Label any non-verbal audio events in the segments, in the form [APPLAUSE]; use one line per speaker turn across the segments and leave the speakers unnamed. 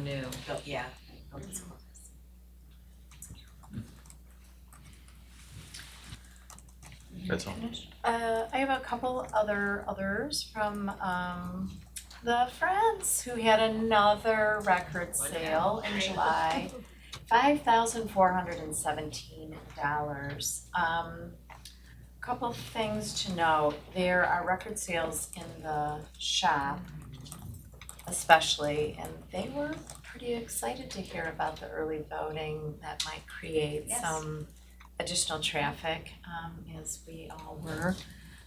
new.
But yeah, Hocus Pocus.
That's all.
Uh, I have a couple other others from um the Friends who had another record
What
sale in July. Five thousand four hundred and seventeen dollars. Um, couple things to note, there are record sales in the shop especially, and they were pretty excited to hear about the early voting that might create
Yes.
some additional traffic, um, as we all were.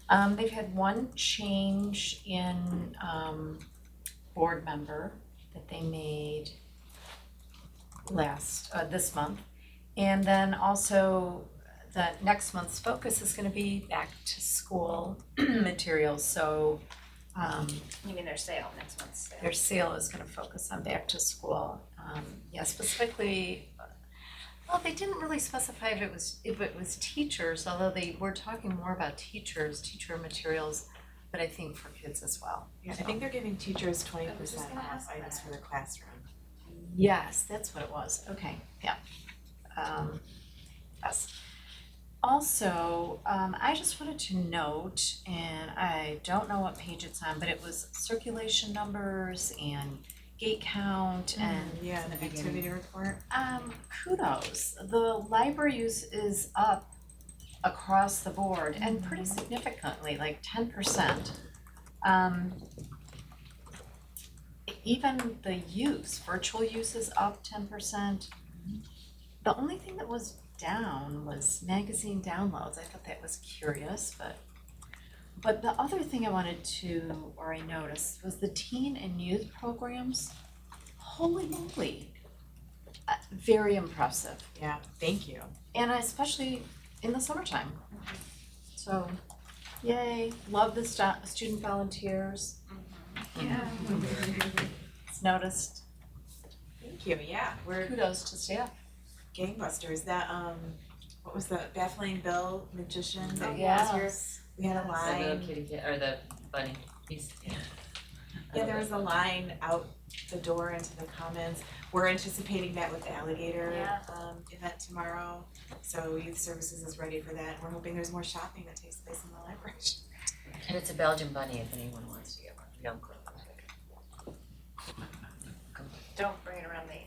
Um, they've had one change in, um, board member that they made last, uh, this month. And then also, the next month's focus is gonna be back to school [CLEARS THROAT] materials, so, um,
You mean their sale, next month's sale?
their sale is gonna focus on back to school. Um, yeah, specifically, well, they didn't really specify if it was, if it was teachers, although they were talking more about teachers, teacher materials, but I think for kids as well.
Yeah, I think they're giving teachers twenty percent
gonna
off
ask
items
that.
for the classroom.
Yes, that's what it was, okay, yeah. Um, yes. Also, um, I just wanted to note, and I don't know what page it's on, but it was circulation numbers and gate count and
Yeah, the activity report.
Um, kudos. The library use is up across the board and pretty significantly, like ten percent. Um, even the use, virtual use is up ten percent. The only thing that was down was magazine downloads. I thought that was curious, but but the other thing I wanted to, or I noticed, was the teen and youth programs. Holy moly, uh, very impressive,
Yeah, thank you.
and especially in the summertime. So, yay, love the stu- student volunteers.
Yeah.
It's noticed.
Thank you, yeah, we're
Kudos to staff.
gangbusters. That um, what was the baffling Bill magician that
Oh,
was
yeah.
here? We had a
Yes.
The little
line.
kitty kid, or the bunny, he's.
Yeah, there was a line out the door into the commons. We're anticipating that with the alligator
Yeah.
um event tomorrow. So youth services is ready for that. We're hoping there's more shopping that takes place in the library.
And it's a Belgian bunny if anyone wants to get one, we don't grow
Don't bring it around the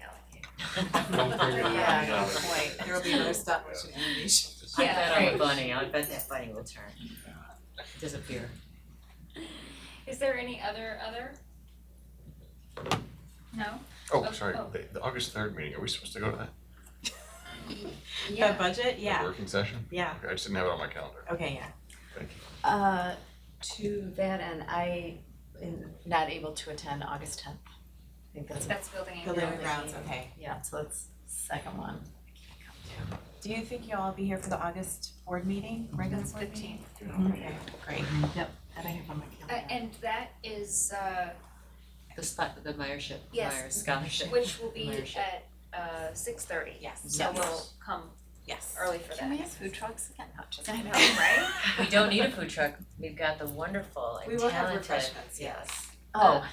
alligator.
Don't bring it around
Yeah,
now.
good point.
There will be other stuff we should unleash.
[LAUGHS] I
Yeah,
bet I'm a
right.
bunny, I bet that bunny will turn. Disappear.
Is there any other, other? No?
Oh, sorry,
Oh.
the, the August third meeting, are we supposed to go to that?
The [LAUGHS] budget, [LAUGHS]
The
yeah,
Working session?
yeah.
Okay, I just didn't have it on my calendar.
Okay, yeah.
Thank you.
Uh, to that end, I am not able to attend August tenth. I think that's,
That's building and
Building
grounds.
and grounds, okay.
yeah, so that's second one.
Do you think you'll all be here for the August board meeting, regular board meeting?
Fifteenth.
Okay, great.
That I have on my
Uh,
calendar.
and that is, uh,
The spot, the Meyership,
Yes.
Meyer Scholarship.
which will be
Leadership.
at, uh, six thirty.
Yes,
So
Yes.
we'll come
yes.
early for that.
Can we have food trucks again? Not just.
I know, right?
[LAUGHS] We don't need a food truck, we've got the wonderful
We
and
will have
talented,
refreshments,
yes,
yes.
Oh,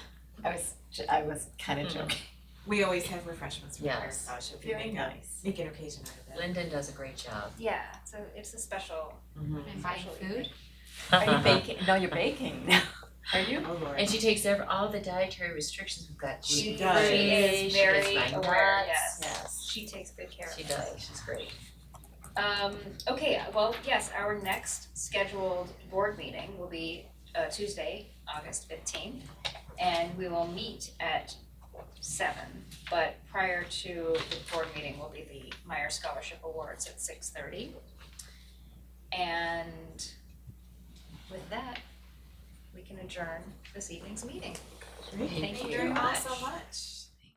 I was, j- I was kind of
Mhm.
joking.
We always have refreshments for her,
Yes.
so it should be make a,
nice.
make an occasion out of it.
Lyndon does a great job.
Yeah, so it's a special,
Buying
Mm-hmm.
[LAUGHS]
special
food? Are
Uh-huh.
you baking? No, you're baking [LAUGHS] now. Are you?
Oh, Lord.
And she takes every, all the dietary restrictions we've got.
She
gluten
does.
free,
She
is
she does
very
my
aware,
nuts.
yes.
Yes.
She takes good care of
She
it.
does, she's great.
Um, okay, well, yes, our next scheduled board meeting will be uh Tuesday, August fifteenth. And we will meet at seven, but prior to the board meeting will be the Meyer Scholarship Awards at six thirty. And with that, we can adjourn this evening's meeting.
Great.
Thank
Thank
you
you
very
all
much.
so much.